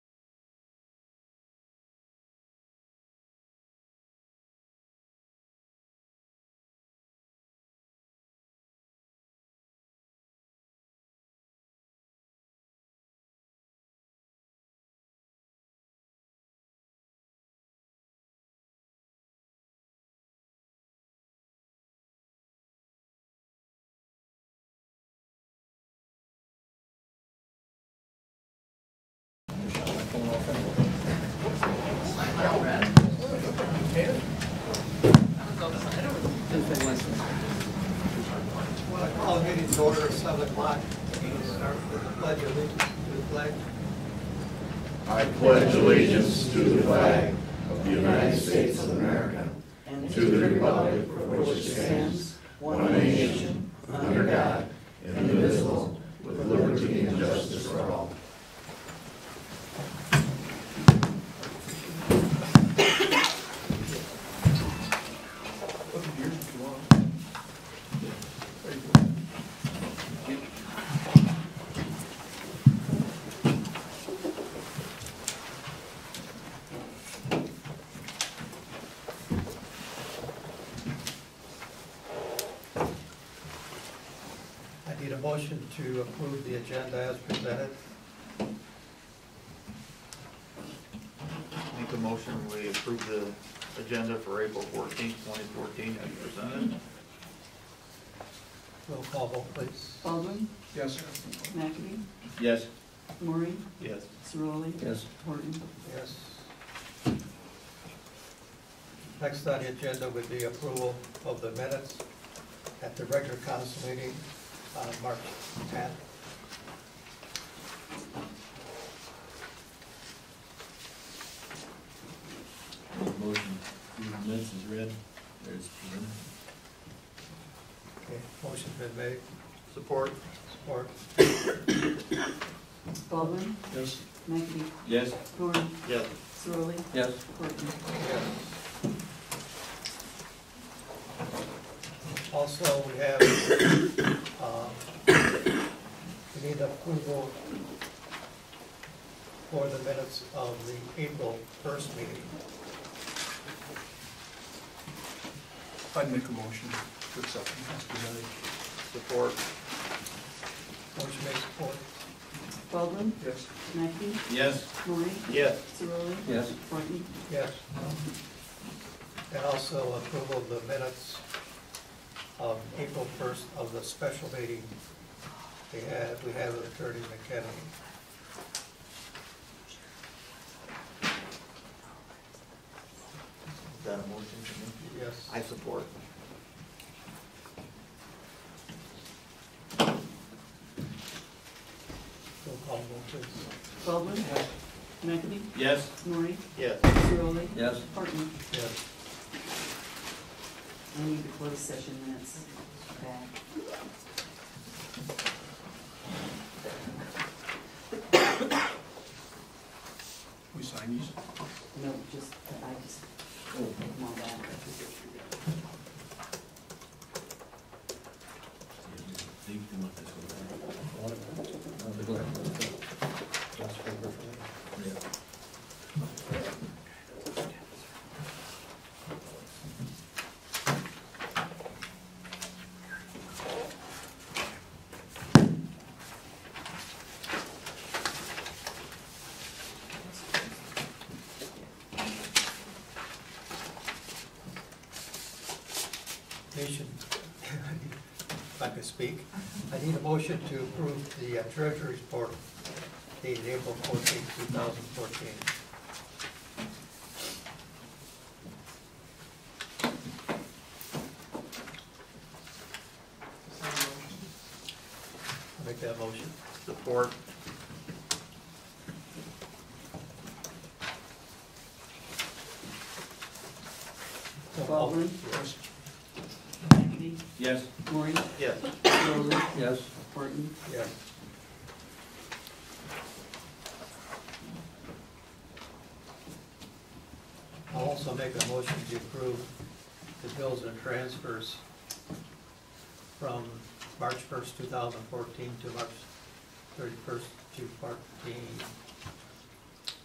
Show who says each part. Speaker 1: Call meeting to order at seven o'clock. We'll Start with the pledge of allegiance to the flag.
Speaker 2: I pledge allegiance to the flag of the United States of America and to the republic for which it stands, one nation, under God, indivisible, with liberty and justice for all.
Speaker 1: I need a motion to approve the agenda as presented.
Speaker 3: Make a motion, we approve the agenda for April fourteenth, twenty fourteen, as presented.
Speaker 1: Roll call vote, please.
Speaker 4: Baldwin,
Speaker 1: Yes, sir.
Speaker 4: McAdie,
Speaker 2: Yes.
Speaker 4: Maureen,
Speaker 3: Yes.
Speaker 4: Cirelli,
Speaker 2: Yes.
Speaker 4: Horton.
Speaker 1: Yes. Next on the agenda would be approval of the minutes at the regular council meeting on March tenth.
Speaker 5: Motion, the minutes is read, there's presented.
Speaker 1: Okay, motion's been made,
Speaker 3: Support?
Speaker 1: support.
Speaker 4: Baldwin,
Speaker 5: Yes.
Speaker 4: McAdie,
Speaker 5: Yes.
Speaker 4: Maureen,
Speaker 3: Yes.
Speaker 4: Cirelli,
Speaker 5: Yes.
Speaker 4: Horton.
Speaker 1: Yes. Also, we have, uh, we need approval for the minutes of the April first meeting.
Speaker 6: I'd make a motion to accept them as presented.
Speaker 3: Support?
Speaker 1: Motion made, support.
Speaker 4: Baldwin,
Speaker 6: Yes.
Speaker 4: McAdie,
Speaker 5: Yes.
Speaker 4: Maureen,
Speaker 3: Yes.
Speaker 4: Cirelli.
Speaker 5: Yes.
Speaker 4: Horton.
Speaker 1: Yes. And also approval of the minutes of April first of the special meeting we had, we had with Attorney McKenna.
Speaker 3: Is that a motion? Jimmy?
Speaker 1: Yes.
Speaker 3: I support.
Speaker 1: Roll call vote, please.
Speaker 4: Baldwin, McAdie,
Speaker 5: Yes.
Speaker 4: Maureen,
Speaker 3: Yes.
Speaker 4: Cirelli.
Speaker 5: Yes.
Speaker 4: Horton.
Speaker 1: Yes.
Speaker 4: I need the closed session minutes back.
Speaker 6: We sign these? Oh.
Speaker 4: No, just, I just, no, that.
Speaker 5: You can let this go back. Yeah.
Speaker 1: Motion, if I could speak, I need a motion to approve the uh, treasurer's report dated April fourteenth, two thousand fourteen. I'll make that motion.
Speaker 3: Support?
Speaker 4: Baldwin,
Speaker 6: Yes.
Speaker 4: McAdie,
Speaker 5: Yes.
Speaker 4: Maureen,
Speaker 3: Yes.
Speaker 4: Cirelli,
Speaker 5: Yes.
Speaker 4: Horton.
Speaker 1: Yes. I'll also make a motion to approve the bills and transfers from March first, two thousand fourteen to March thirty-first, two fourteen,